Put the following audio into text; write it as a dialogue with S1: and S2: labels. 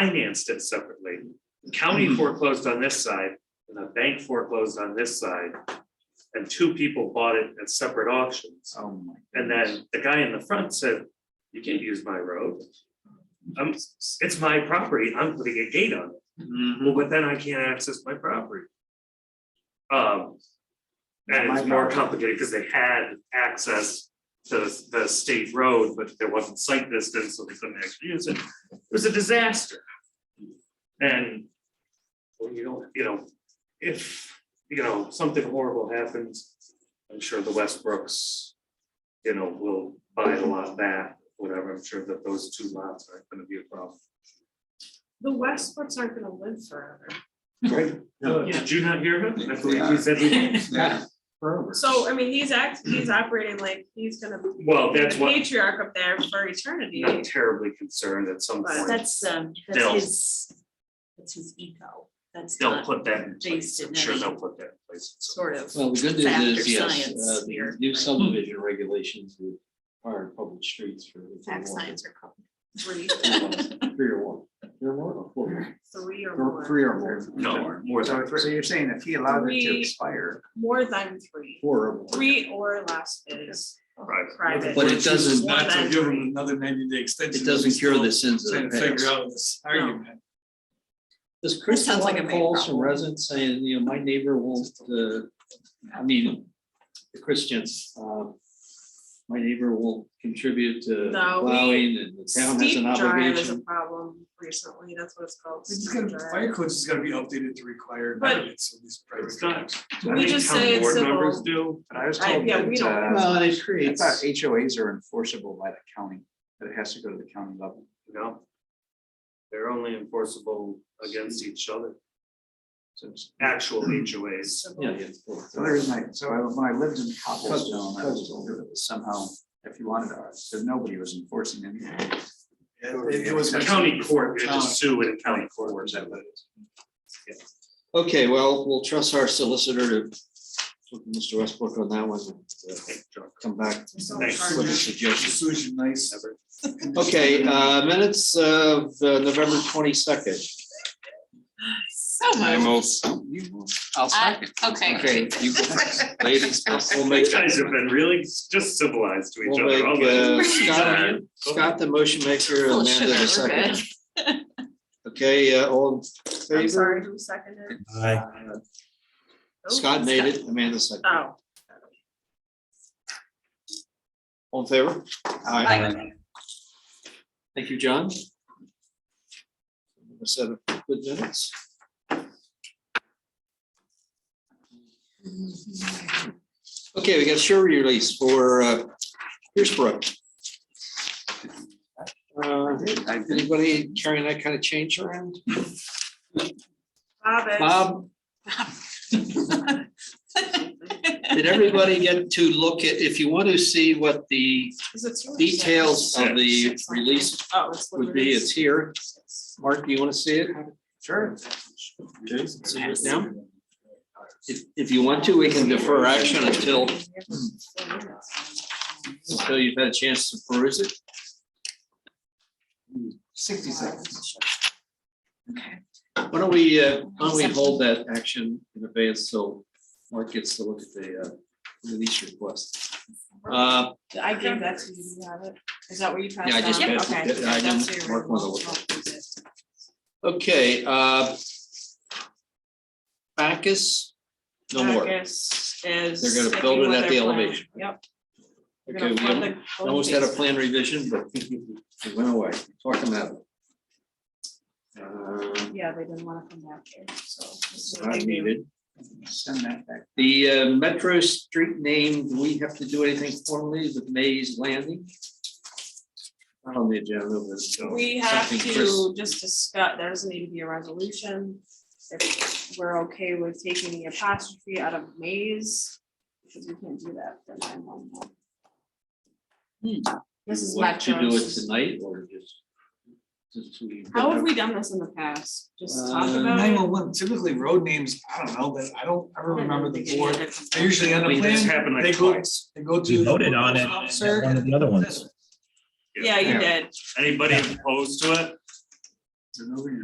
S1: financed it separately. The
S2: Hmm.
S1: County foreclosed on this side and the bank foreclosed on this side. And two people bought it at separate auctions.
S2: Oh my.
S1: And
S2: goodness.
S1: then the guy in the front said, you can't use my road. I'm, it's my property, I'm putting a gate on it,
S2: mm-hmm.
S1: well, but then I can't access my property. Um. And it's
S2: My
S1: more
S2: property.
S1: complicated because they had access to the state road, but there wasn't sight distance, so they couldn't actually use it, it was a disaster. And. Well, you don't, you know, if, you know, something horrible happens, I'm sure the Westbrooks you know, we'll buy a lot back, whatever, I'm sure that those two lots aren't gonna be a problem.
S3: The Westbrooks aren't gonna live forever.
S1: Right.
S2: No.
S1: Did you not hear him? I believe he
S2: Yeah.
S1: said he-
S2: Yeah. Forever.
S3: So, I mean, he's act, he's operating like he's gonna be
S1: well,
S3: the
S1: that's what,
S3: patriarch up there for eternity.
S1: not terribly concerned at some
S3: But
S1: point,
S4: That's, um,
S1: They'll-
S4: that's his, that's his ego, that's
S1: they'll
S4: not
S1: put that in place,
S4: based
S1: I'm
S4: in
S1: sure
S4: any
S1: they'll put that in place. at some
S4: sort of.
S5: Well, the good
S4: Fact
S5: news is,
S4: or
S5: yes,
S4: science
S5: uh,
S4: here,
S5: the new
S4: right.
S5: subdivision regulations require public streets for.
S4: Fact science or code.
S3: Three,
S5: Three or more, three or more, or four,
S3: three or
S5: Or
S3: more.
S5: three or more,
S1: point. No, more
S2: So
S1: than,
S2: if- so you're saying if he allowed it to
S3: Three.
S2: expire,
S3: More than three.
S5: four or more.
S3: Three or less is
S1: Private.
S3: private.
S5: But it doesn't-
S3: More
S6: Not to
S3: than
S6: give them
S3: three.
S6: another ninety day extension.
S5: It doesn't cure the sins
S6: Trying
S5: of
S6: to
S5: the
S6: figure
S5: past.
S6: out this argument.
S5: Does Chris
S4: sounds like
S5: want
S4: a me
S5: calls from
S4: problem.
S5: residents saying, you know, my neighbor won't, uh, I mean, the Christians, uh, my neighbor won't contribute to
S3: No, we-
S5: plowing and the town has
S3: Steep
S5: an
S3: drive is a
S5: obligation.
S3: problem recently, that's what it's called.
S6: It's just
S3: steep
S6: gonna,
S3: drive.
S6: fire codes is gonna be updated to require
S3: But-
S6: variance of these private.
S1: It's not-
S6: drives.
S1: I
S3: We
S1: think
S3: just
S1: town
S3: say it's
S1: board
S3: civil.
S1: members do,
S2: but I was
S3: I-
S2: told
S3: yeah, we
S2: that,
S3: don't-
S2: uh,
S5: Well, it
S2: I
S5: creates.
S2: thought HOAs are enforceable by the county, that it has to go to the county level.
S1: you know? They're only enforceable against each other,
S2: So it's-
S1: actual HOAs.
S5: Yeah,
S4: Oh.
S5: yeah, it's four.
S2: So there is my, so I- when I lived in Cobblestone, I was
S5: Cobblestone.
S2: told that it was somehow, if you wanted to, so nobody was enforcing anything.
S6: Yeah, It it was.
S1: The county court, you just sue in county court.
S2: Or is that what it is?
S5: Okay, well, we'll trust our solicitor to, talk to Mr. Westbrook on that one, and, uh, come back
S3: So
S1: Thanks.
S3: hard
S5: with a
S3: to-
S5: suggestion.
S6: Solution nice.
S5: Okay, uh, minutes of uh, November twenty-second.
S4: So Oh
S5: I'll
S4: Okay.
S5: Okay, you go first. ladies, we'll make,
S1: These guys have been really just civilized to each
S5: we'll
S1: other. all
S5: make,
S1: the-
S5: uh, Scott, Scott the motion maker,
S4: Full of
S5: Amanda the
S4: sugar, we're
S5: second. Okay, uh, all in
S3: I'm
S5: favor?
S3: sorry, who seconded? Oh,
S5: Scott made it, Amanda second.
S3: Oh,
S5: All in favor? Aye. Thank you, John. A set of good minutes. Okay, we got sure release for uh, Pierce Brook. Uh, Anybody carrying that kind of change around?
S3: Bob is-
S5: Bob, did everybody get to look at, if you want to see what the
S3: is it yours?
S5: details of the release
S3: Oh, it's.
S5: would be, it's here. Mark, do you want to see it?
S2: Sure.
S5: See it now? If, if you want to, we can defer action until, until you've had a chance to peruse it.
S2: Sixty seconds.
S5: Why don't we, uh, why don't we hold that action in advance so Mark gets to look at the, uh, release request? Uh,
S3: I gave that to you, you have it, is that what you passed on?
S5: Yeah, I just passed it.
S3: Okay.
S5: I didn't
S3: That's your
S5: mark one of
S3: original.
S5: okay, uh. Backus, no more. Okay,
S3: Backus is.
S5: They're gonna
S3: sticking
S5: build it
S3: with
S5: at
S3: their
S5: the
S3: plan.
S5: elevation.
S3: Yep. They're
S5: we
S3: gonna fund
S5: almost-
S3: the
S5: almost had a
S3: elevation.
S5: plan revision, but it went away. Talk about it. Uh,
S3: Yeah, they didn't wanna come back here, so. this is what
S5: not
S3: they do.
S5: needed.
S2: Send that back.
S5: The uh, Metro Street name, do we have to do anything formally with Mays Landing? Not on the agenda, but. uh, so
S3: We have
S5: something Chris-
S3: to just discuss, there doesn't need to be a resolution. If we're okay with taking the apostrophe out of maze, because we can't do that for nine one one. This is
S5: you want To do it
S3: Metro's.
S5: tonight or just? just we-
S3: How have we done this in the past? Just talk
S5: Uh,
S3: about
S6: Nine
S3: it?
S6: one one, typically road names, I don't know, but I don't ever remember the board.
S3: I
S6: They usually end up
S5: I mean,
S1: This
S6: playing,
S1: happened
S6: they
S1: like
S6: go-
S1: twice.
S6: they go to.
S7: We
S6: the
S7: voted on it
S6: officer
S7: at one of the other ones.
S3: Yeah, you did.
S1: Anybody opposed to it?
S2: There's nobody